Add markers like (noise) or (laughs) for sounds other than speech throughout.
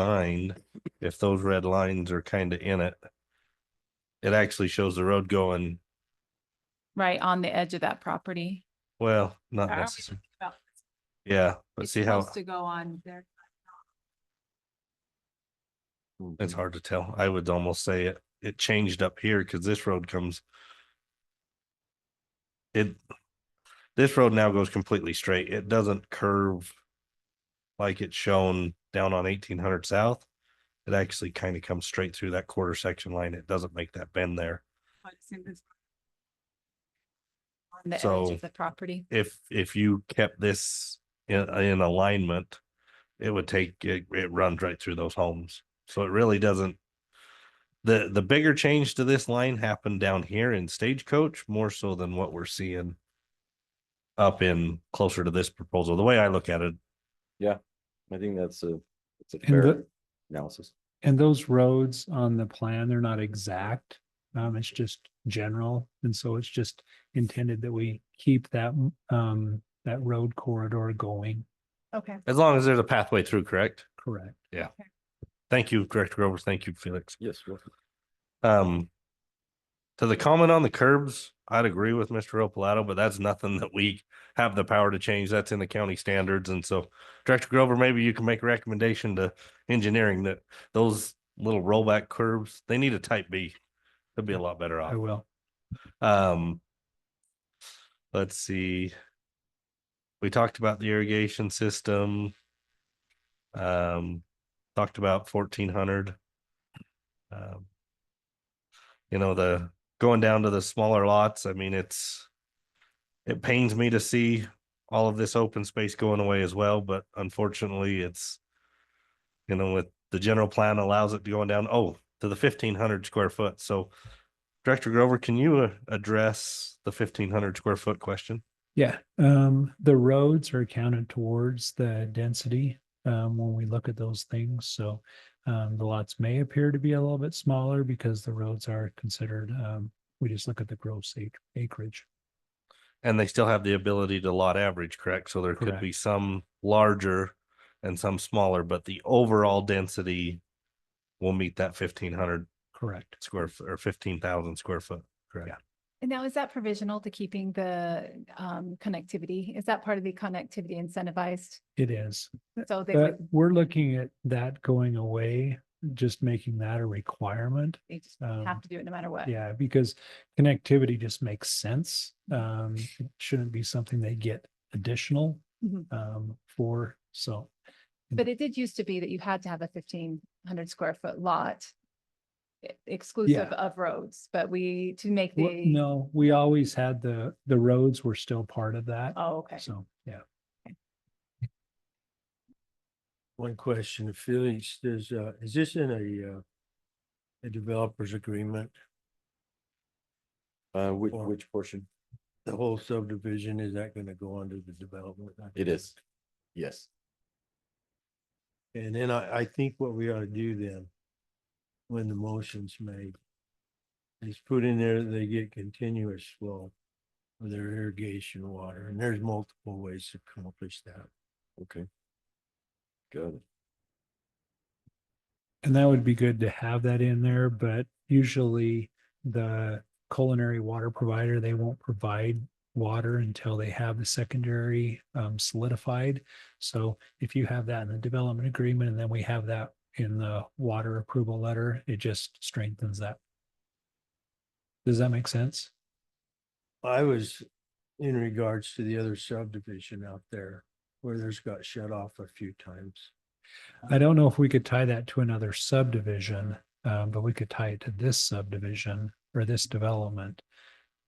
designed, if those red lines are kind of in it, it actually shows the road going, right on the edge of that property. well, not Are we necessarily. about- Yeah, but Ah. It's see how, supposed To go on there. it's hard to tell. I would almost say it, it changed up here because this road comes it, this road now goes completely straight. It doesn't curve like it's shown down on eighteen hundred south. It actually kind of comes straight through that quarter section line. It doesn't make that bend there. On the edge So- of the property. if if you kept this in in alignment, it would take, it it runs right through those homes. So it really doesn't. The the bigger change to this line happened down here in Stagecoach more so than what we're seeing. Up in closer to this proposal, the way I look at it, I think that's a, it's a And fair the- analysis. And those roads on the plan, they're not exact. Um, it's just general. And so it's just intended that we keep that, um, that road corridor going. Okay. as long as there's a pathway through, correct? Correct. Thank you, Director Grover. Thank you, Felix. Yes. well, Um, to the comment on the curbs, I'd agree with Mr. Opalato, but that's nothing that we have the power to change. That's in the county standards. And so Director Grover, maybe you can make a recommendation to engineering that those little rollback curves, they need a type B. That'd be a lot better off. I will. Um, let's see. We talked about the irrigation system. Um, talked about fourteen hundred. Um, You know, the, going down to the smaller lots, I mean, it's, it pains me to see all of this open space going away as well, but unfortunately, it's, you know, with the general plan allows it to go down, oh, to the fifteen hundred square foot, so Director Grover, can you uh, address the fifteen hundred square foot question? Yeah, um, the roads are counted towards the density, um, when we look at those things, so. Um, the lots may appear to be a little bit smaller because the roads are considered, um, we just look at the gross ac- acreage. And they still have the ability to lot average, correct? So there could be some larger and some smaller, but the overall density will meet that fifteen hundred Correct. square f- or fifteen thousand square foot, correct? And now is that provisional to keeping the um connectivity? Is that part of the connectivity incentivized? It is. So they But would, we're looking at that going away, just making that a requirement. they just Um, have to do it no matter what. Yeah, because connectivity just makes sense. Um, it shouldn't be something they get additional Mhm. um for, so. But it did used to be that you had to have a fifteen hundred square foot lot e- exclusive of roads, but we, to make Well, the, No, we always had the, the roads were still part of that. oh, okay. So, yeah. One question, Felix, there's, uh, is this in a, uh, a developer's agreement? Uh, which, Or- which portion? The whole subdivision, is that gonna go under the development? It is. Yes. And then I, I think what we ought to do then, when the motion's made, is put in there that they get continuous flow of their irrigation water, and there's multiple ways to accomplish that. Okay. Got it. And that would be good to have that in there, but usually the culinary water provider, they won't provide water until they have the secondary um, solidified. So if you have that in the development agreement and then we have that in the water approval letter, it just strengthens that. Does that make sense? I was in regards to the other subdivision out there where there's got shut off a few times. I don't know if we could tie that to another subdivision, um, but we could tie it to this subdivision or this development.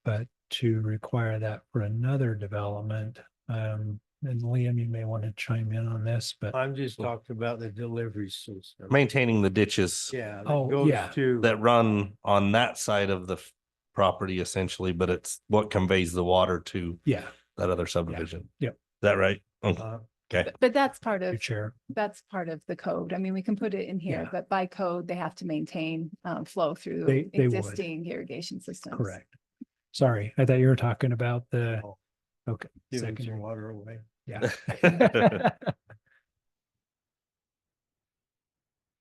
But to require that for another development, um, and Liam, you may want to chime in on this, but I'm just talking about the delivery system. Maintaining the ditches Yeah. that Oh, goes yeah. To. that run on that side of the f- property essentially, but it's what conveys the water to yeah, that other subdivision. Yep. Is that right? Okay. uh, But- But that's part your of chair. That's part of the code. I mean, we can put it in here, Yeah. but by code, they have to maintain um flow They- through they would. existing irrigation systems. Correct. Sorry, I thought you were talking about the, Oh. okay. giving some (laughs) secondary. water away. Yeah.